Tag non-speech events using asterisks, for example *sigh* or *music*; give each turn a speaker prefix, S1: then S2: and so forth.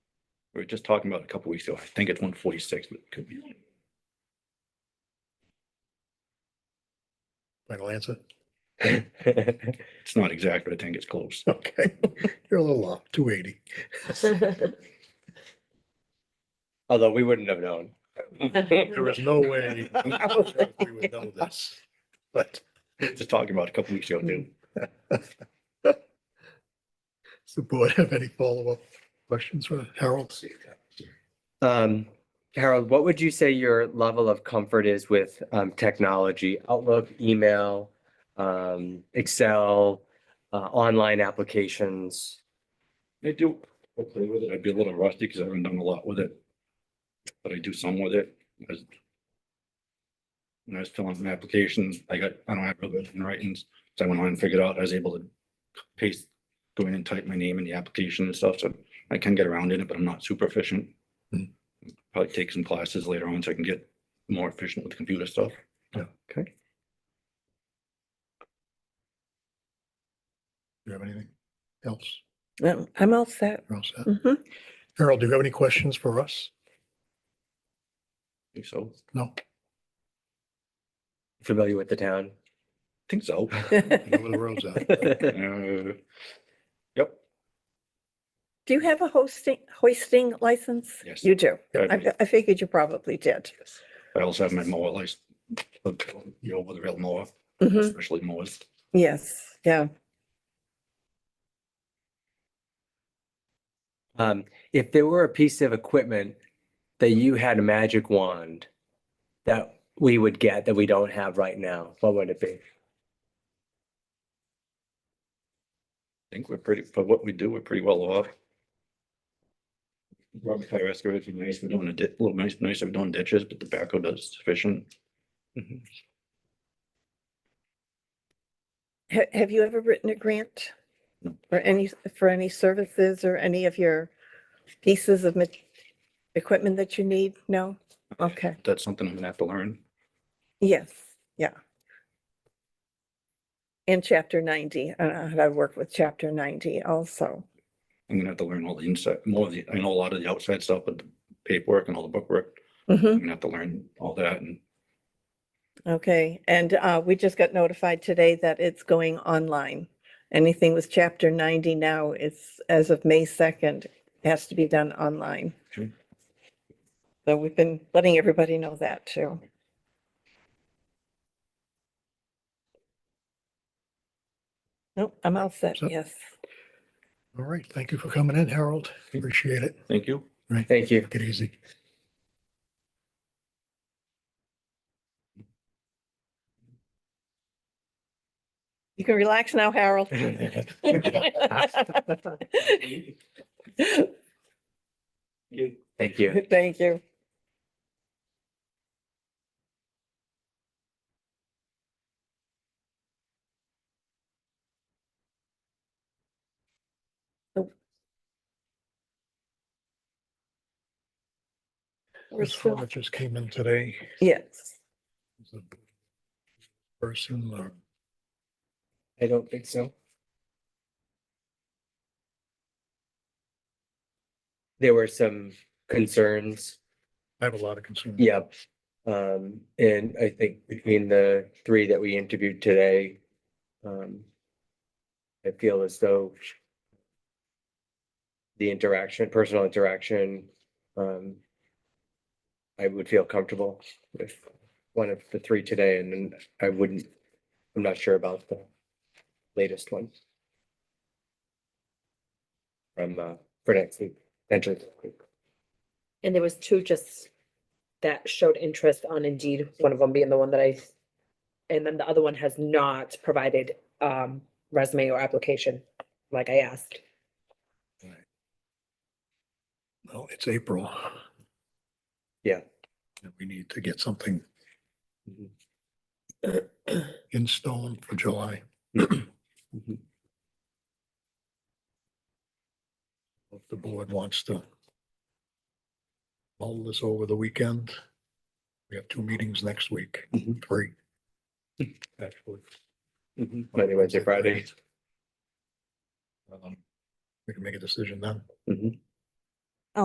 S1: We were just talking about it a couple weeks ago. I think it's one forty-six, but it could be.
S2: Final answer?
S1: It's not exact, but I think it's close.
S2: *laughs*
S1: *laughs*
S2: Okay, you're a little off, two eighty.
S3: *laughs* Although we wouldn't have known.
S2: There is no way. We would know this, but
S1: Just talking about it a couple weeks ago, too.
S2: does the board have any follow-up questions for Harold?
S3: Um, Harold, what would you say your level of comfort is with um, technology, Outlook, email, um, Excel, uh, online applications?
S1: I do play with it. I'd be a little rusty because I haven't done a lot with it. But I do some with it. I was- When I was filling some applications, I got, I don't have real good handwritings, so I went on and figured out, I was able to paste, go in and type my name in the application and stuff, so I can get around in it, but I'm not super efficient.
S2: Hmm.
S1: Probably take some classes later on so I can get more efficient with computer stuff.
S2: Do you have anything else?
S4: Um, I'm all set.
S2: You're all set.
S4: Mhm.
S2: Harold, do you have any questions for us?
S1: Think So, I
S2: No,
S3: Familiar with the town?
S1: think so.
S2: over the road's out.
S1: Uh, Yep,
S4: *laughs* Do you have a hosting, hoisting license?
S1: Yes.
S4: You do.
S1: I
S4: I,
S1: do.
S4: fi- I figured you probably did.
S1: I also have my mower license, you know, with a real mower.
S4: Mhm.
S1: especially mowers.
S4: Yes, yeah.
S3: Um, if there were a piece of equipment that you had a magic wand that we would get that we don't have right now, what would it be?
S1: I think we're pretty, for what we do, we're pretty well off. Rubber tire excavator would be nice, we're doing a di- little nice, nice, we're doing ditches, but the backhoe does sufficient.
S4: Ha- have you ever written a grant?
S1: No.
S4: For any, for any services or any of your pieces of mat- equipment that you need? No? Okay,
S1: That's something I'm gonna have to learn.
S4: yes, yeah. And chapter ninety, I don't know how to work with chapter ninety also.
S1: I'm gonna have to learn all the inside, more of the, I know a lot of the outside stuff, but the paperwork and all the bookwork,
S4: Mhm.
S1: I'm gonna have to learn all that and
S4: Okay, and uh, we just got notified today that it's going online. Anything with chapter ninety now, it's as of May second, has to be done online.
S1: Okay.
S4: So we've been letting everybody know that too. Nope, I'm all set,
S2: So-
S4: yes.
S2: *laughs* All right, thank you for coming in, Harold. Appreciate it.
S1: thank you.
S3: Thank you.
S2: Take it easy.
S4: You can relax now, Harold. *laughs*
S3: Thank you.
S4: *laughs* Thank you. So- We're
S2: This one
S4: still,
S2: that just came in today.
S4: yes,
S2: is a Person, uh,
S3: I don't think so. There were some concerns,
S2: I have a lot of concerns.
S3: yep. Um, and I think between the three that we interviewed today, um, I feel as though the interaction, personal interaction, um, I would feel comfortable with one of the three today and then I wouldn't, I'm not sure about the latest one. From, uh, for next week, potentially. next week.
S5: And there was two just that showed interest on Indeed, one of them being the one that I, and then the other one has not provided um resume or application, like I asked.
S2: Well, it's April.
S3: Yeah.
S2: And we need to get something
S3: Mhm.
S2: in stone for July.
S3: Mhm.
S2: If the board wants to mull this over the weekend, we have two meetings next week,
S1: Mhm.
S2: three. Actually.
S3: Monday, Wednesday, Friday.
S2: Um, We can make a decision then.
S1: Mhm.